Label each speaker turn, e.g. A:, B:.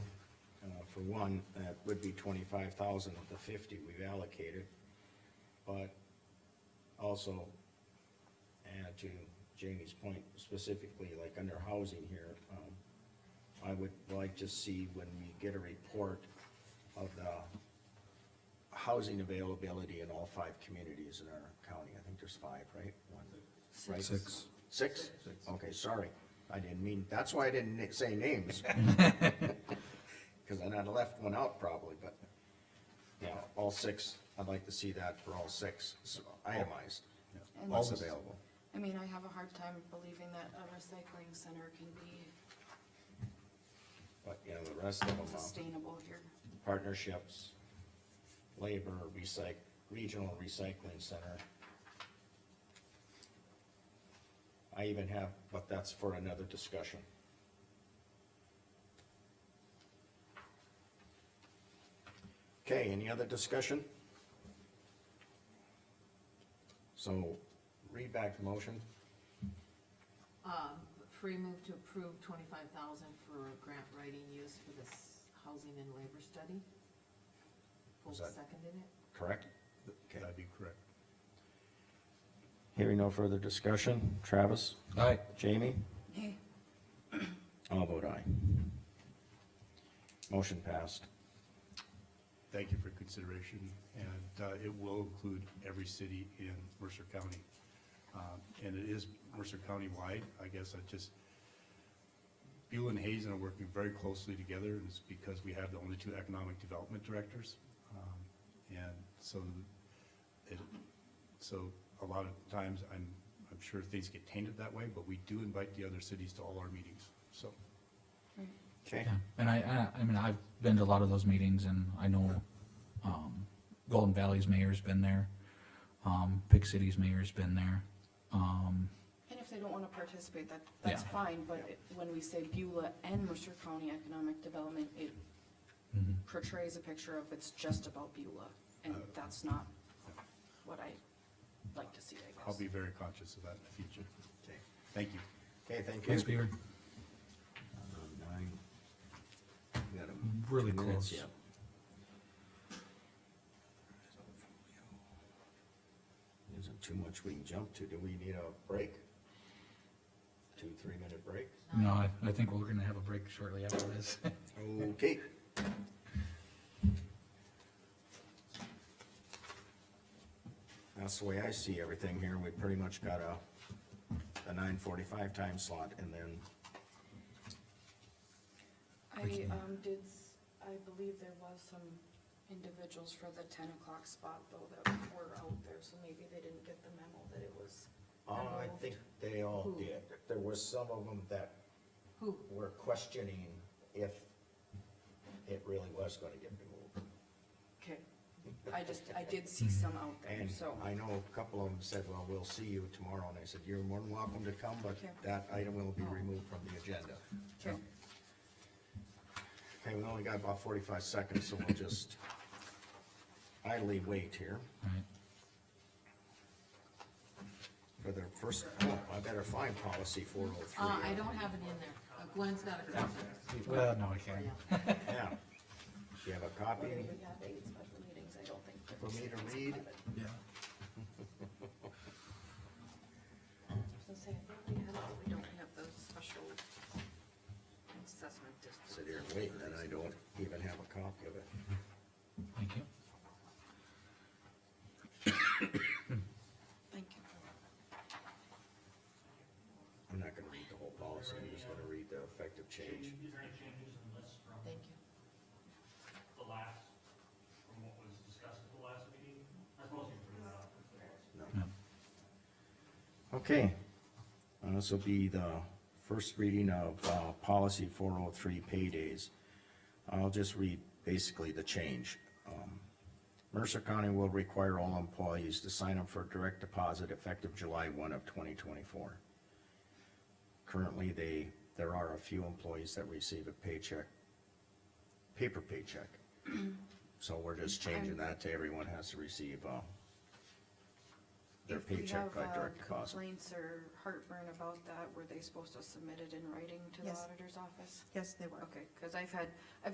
A: uh, for one, that would be twenty-five thousand of the fifty we've allocated. But also, and to Jamie's point specifically, like under housing here, um, I would like to see when we get a report of the housing availability in all five communities in our county. I think there's five, right? One, right?
B: Six.
A: Six? Okay, sorry. I didn't mean, that's why I didn't ni- say names. Cause then I'd left one out probably, but, yeah, all six, I'd like to see that for all six, so itemized.
C: And
A: What's
C: this-
A: available.
C: I mean, I have a hard time believing that a recycling center can be
A: But, you know, the rest of them, uh,
C: sustainable if you're,
A: partnerships, labor, recyc, regional recycling center. I even have, but that's for another discussion. Okay, any other discussion? So, read back the motion,
D: Um, free move to approve twenty-five thousand for grant writing use for this housing and labor study. Folks
A: that-
D: seconded it?
A: correct?
E: That'd be correct.
A: Hearing no further discussion, Travis,
B: Aye.
A: Jamie?
C: hey,
A: I'll vote aye. Motion passed.
E: Thank you for your consideration, and uh, it will include every city in Mercer County. Um, And it is Mercer County-wide, I guess I just, Buell and Hazen are working very closely together, and it's because we have the only two economic development directors. Um, And so, it, so a lot of times, I'm, I'm sure things get tainted that way, but we do invite the other cities to all our meetings, so.
A: Okay.
F: Yeah, and I, I, I mean, I've been to a lot of those meetings and I know, um, Golden Valley's mayor's been there. Um, Big City's mayor's been there. Um,
C: and if they don't wanna participate, that, that's
F: Yeah.
C: fine, but it- when we say Beulah and Mercer County Economic Development, it portrays a picture of it's just about Beulah, and that's not what I like to see, I guess.
E: I'll be very conscious of that in the future.
A: Okay.
E: Thank you.
A: Okay, thank
F: Thanks,
A: you.
F: Beaver.
A: Um, nine. We got a-
F: Mm, Really
A: minutes,
F: close.
A: yeah. Isn't too much we can jump to. Do we need a break? Two, three minute break?
F: No, I, I think we're gonna have a break shortly after this.
A: Okay. That's the way I see everything here. We pretty much got a, a nine forty-five time slot and then
C: I, um, did, s- I believe there was some individuals for the ten o'clock spot though that were out there, so maybe they didn't get the memo that it was.
A: Uh, I
C: removed.
A: think they all
D: Who?
A: did. There was some of them that
D: Who?
A: were questioning if it really was gonna get removed.
C: Okay, I just, I did see some out there,
A: And
C: so,
A: I know a couple of them said, well, we'll see you tomorrow, and I said, you're more than welcome to come, but
C: Okay.
A: that item will be removed from the agenda.
C: okay,
A: Okay, we only got about forty-five seconds, so we'll just idly wait here
F: Right.
A: for the first, oh, I better find policy four oh three.
D: Uh, I don't have it in there. Uh, Gwen's got a copy.
F: Well, no, I can't.
D: Yeah.
A: Yeah. Do you have a copy
C: we have eight special meetings, I don't think.
A: for me to read?
F: Yeah.
C: So say, I think we have, but we don't have the special assessment district.
A: Sit here and wait, and I don't even have a copy of it.
F: Thank you.
C: Thank you.
A: I'm not gonna read the whole policy, I'm just gonna read the effective change.
G: Is there any changes in this from
D: Thank you.
G: the last, from what was discussed at the last meeting? I suppose you can put it up.
A: Okay, Uh, this will be the first reading of, uh, policy four oh three paydays. I'll just read basically the change. Um, Mercer County will require all employees to sign up for direct deposit effective July one of twenty twenty-four. Currently, they, there are a few employees that receive a paycheck, paper paycheck. So we're just changing that to everyone has to receive, uh, their
C: If we
A: paycheck
C: have,
A: by
C: uh,
A: direct deposit.
C: Complaints or heartburn about that, were they supposed to submit it in writing to the
H: Yes.
C: auditor's office?
H: Yes, they were.
C: Okay, cause I've had, I've